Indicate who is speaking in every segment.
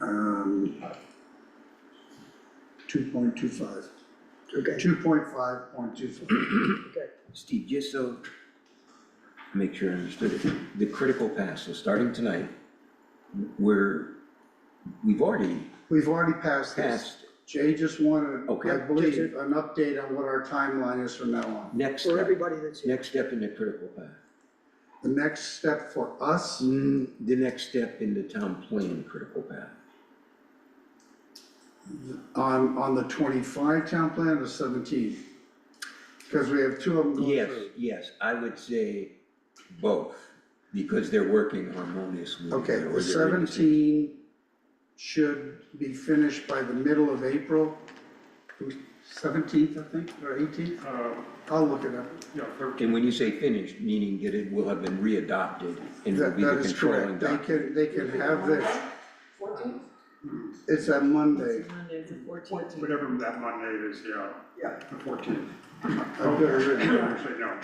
Speaker 1: Um, Two point two five.
Speaker 2: Okay.
Speaker 1: Two point five point two five.
Speaker 3: Steve, just so, make sure I understood it, the critical path, so starting tonight, we're, we've already
Speaker 1: We've already passed this.
Speaker 3: passed,
Speaker 1: Jay just wanted,
Speaker 3: Okay.
Speaker 1: I believe, an update on what our timeline is from now on.
Speaker 3: next
Speaker 2: For
Speaker 3: step,
Speaker 2: everybody that's here.
Speaker 3: next step in the critical path.
Speaker 1: The next step for us,
Speaker 3: Mm, The next step in the town plan critical path,
Speaker 1: on, on the twenty-five town plan, the seventeenth. Because we have two of them going
Speaker 3: yes,
Speaker 1: through.
Speaker 3: yes, I would say both, because they're working harmoniously.
Speaker 1: Okay,
Speaker 3: or
Speaker 1: the
Speaker 3: they're in
Speaker 1: seventeen should be finished by the middle of April. Seventeenth, I think, or eighteenth,
Speaker 4: Uh,
Speaker 1: I'll look it up.
Speaker 4: yeah, they're-
Speaker 3: And when you say finished, meaning that it will have been readopted and will
Speaker 1: That,
Speaker 3: be the
Speaker 1: that is
Speaker 3: controlling
Speaker 1: correct, they
Speaker 3: document.
Speaker 1: can, they can have this,
Speaker 5: Fourteenth?
Speaker 1: it's a Monday.
Speaker 5: Monday, it's the fourteenth.
Speaker 4: whatever that Monday is, yeah,
Speaker 2: Yeah.
Speaker 4: the fourteenth.
Speaker 1: I've got it written down.
Speaker 4: Actually, no,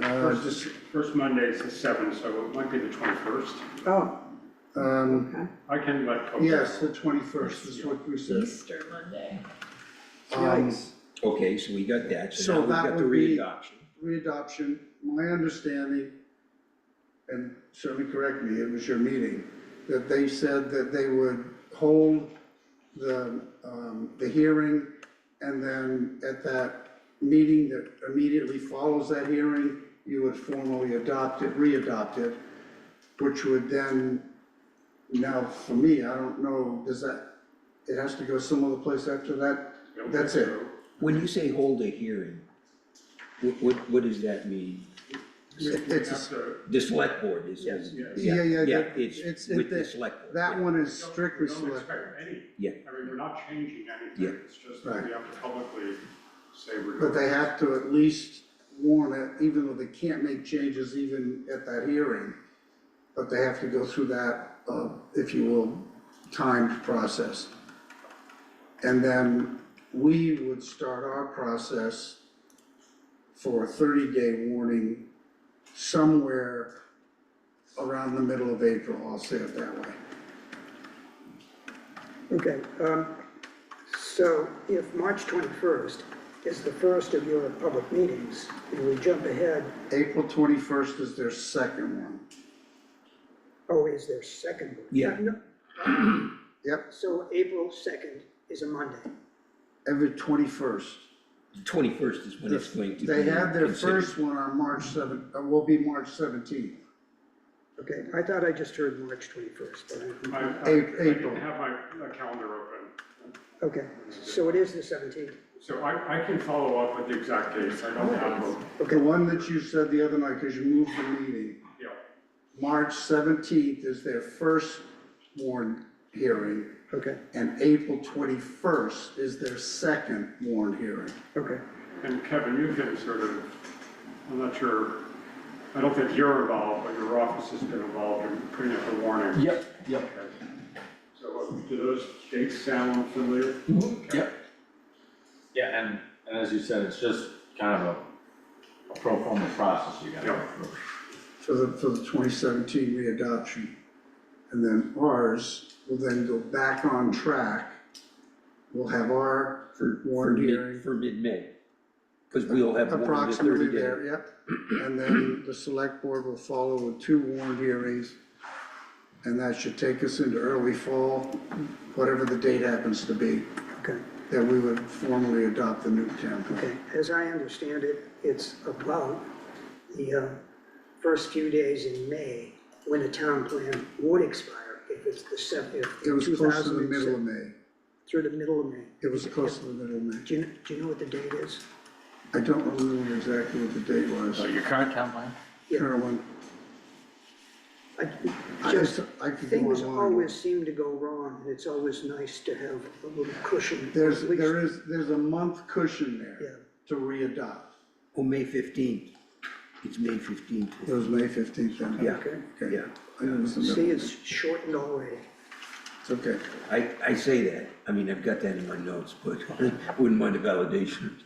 Speaker 1: Uh,
Speaker 4: first,
Speaker 1: just,
Speaker 4: first Monday is the seventh, so it might be the twenty-first.
Speaker 2: Oh,
Speaker 1: um,
Speaker 2: okay.
Speaker 4: I can let. Coco-
Speaker 1: yes, the twenty-first is what we said.
Speaker 5: Easter Monday.
Speaker 1: Um,
Speaker 2: Yikes.
Speaker 3: Okay, so we got that,
Speaker 1: So
Speaker 3: so now we've
Speaker 1: that
Speaker 3: got the
Speaker 1: would be-
Speaker 3: readoption.
Speaker 1: readoption, my understanding, and certainly correct me, it was your meeting, that they said that they would hold the, um, the hearing, and then at that meeting that immediately follows that hearing, you would formally adopt it, re-adopt it, which would then, now for me, I don't know, does that, it has to go some other place after that? That's it.
Speaker 3: When you say hold a hearing, what, what, what does that mean?
Speaker 4: We we
Speaker 1: It's a-
Speaker 4: have to-
Speaker 3: The select board is, is.
Speaker 4: Yes.
Speaker 1: Yeah, yeah, that-
Speaker 3: it's
Speaker 1: it's-
Speaker 3: with the
Speaker 1: that-
Speaker 3: select board.
Speaker 1: That
Speaker 3: yeah.
Speaker 1: one is strictly
Speaker 4: we don't
Speaker 1: select.
Speaker 4: expect any.
Speaker 3: Yeah.
Speaker 4: I mean, we're not changing
Speaker 3: Yeah.
Speaker 4: anything, it's just that we have to publicly say we're.
Speaker 1: But they have to at least warn it, even though they can't make changes even at that hearing. But they have to go through that, uh, if you will, timed process. And then we would start our process for a thirty-day warning somewhere around the middle of April, I'll say it that way.
Speaker 2: Okay, um, so if March twenty-first is the first of your public meetings, and we jump ahead,
Speaker 1: April twenty-first is their second one.
Speaker 2: oh, is there second? one?
Speaker 3: Yeah.
Speaker 2: No,
Speaker 1: Yep,
Speaker 2: So April second is a Monday.
Speaker 1: every twenty-first.
Speaker 3: The twenty-first is when it's going to be
Speaker 1: They had their
Speaker 3: considered.
Speaker 1: first one on March seven, uh, will be March seventeenth.
Speaker 2: Okay, I thought I just heard March twenty-first, but,
Speaker 4: I, I I
Speaker 1: April.
Speaker 4: didn't have my uh, calendar open,
Speaker 2: I- okay, so it is the seventeenth.
Speaker 4: so I, I can follow up with the exact dates, I
Speaker 1: Oh,
Speaker 4: don't have them,
Speaker 1: The one that you said the other night, cause you moved the meeting,
Speaker 4: yeah.
Speaker 1: March seventeenth is their first warrant hearing,
Speaker 2: Okay,
Speaker 1: and April twenty-first is their second warrant hearing.
Speaker 2: okay,
Speaker 4: And Kevin, you can sort of, I'm not sure, I don't think you're involved, but your office has been involved in putting up a warning.
Speaker 6: Yep, yep,
Speaker 4: Okay. So uh, do those dates sound familiar?
Speaker 6: yep. Yeah, and, and as you said, it's just kind of a, a pro forma process you gotta go
Speaker 4: Yeah.
Speaker 6: through.
Speaker 1: For the, for the twenty seventeen readoption. And then ours will then go back on track. We'll have our
Speaker 3: For, for
Speaker 1: warrant
Speaker 3: mid,
Speaker 1: hearing
Speaker 3: for mid-May. Cause we'll have one in the
Speaker 1: approximately
Speaker 3: thirty day.
Speaker 1: there, yep. And then the select board will follow with two warrant hearings. And that should take us into early fall, whatever the date happens to be,
Speaker 2: okay.
Speaker 1: that we would formally adopt the new town plan.
Speaker 2: Okay, as I understand it, it's about the uh, first few days in May when a town plan would expire if it's the seventh, if
Speaker 1: It was close to the middle
Speaker 2: 2007
Speaker 1: of May.
Speaker 2: Through the middle of May.
Speaker 1: It was close to the middle of May.
Speaker 2: Do you, kn- do you know what the date is?
Speaker 1: I don't remember exactly what the date was.
Speaker 6: your current town plan?
Speaker 2: yeah.
Speaker 1: Carolyn,
Speaker 2: I
Speaker 1: I
Speaker 2: just,
Speaker 1: just, I could go
Speaker 2: things
Speaker 1: along.
Speaker 2: always seem to go wrong and it's always nice to have a little cushion.
Speaker 1: There's,
Speaker 2: at least-
Speaker 1: there is, there's a month cushion there
Speaker 2: Yeah.
Speaker 1: to re-adopt.
Speaker 3: Oh, May fifteenth, it's May fifteenth,
Speaker 1: It was May fifteenth then.
Speaker 3: yeah,
Speaker 2: Okay.
Speaker 1: Okay.
Speaker 3: yeah.
Speaker 1: I know it was the middle.
Speaker 2: See, it's shortened already.
Speaker 1: It's okay.
Speaker 3: I, I say that, I mean, I've got that in my notes, but wouldn't mind a validation.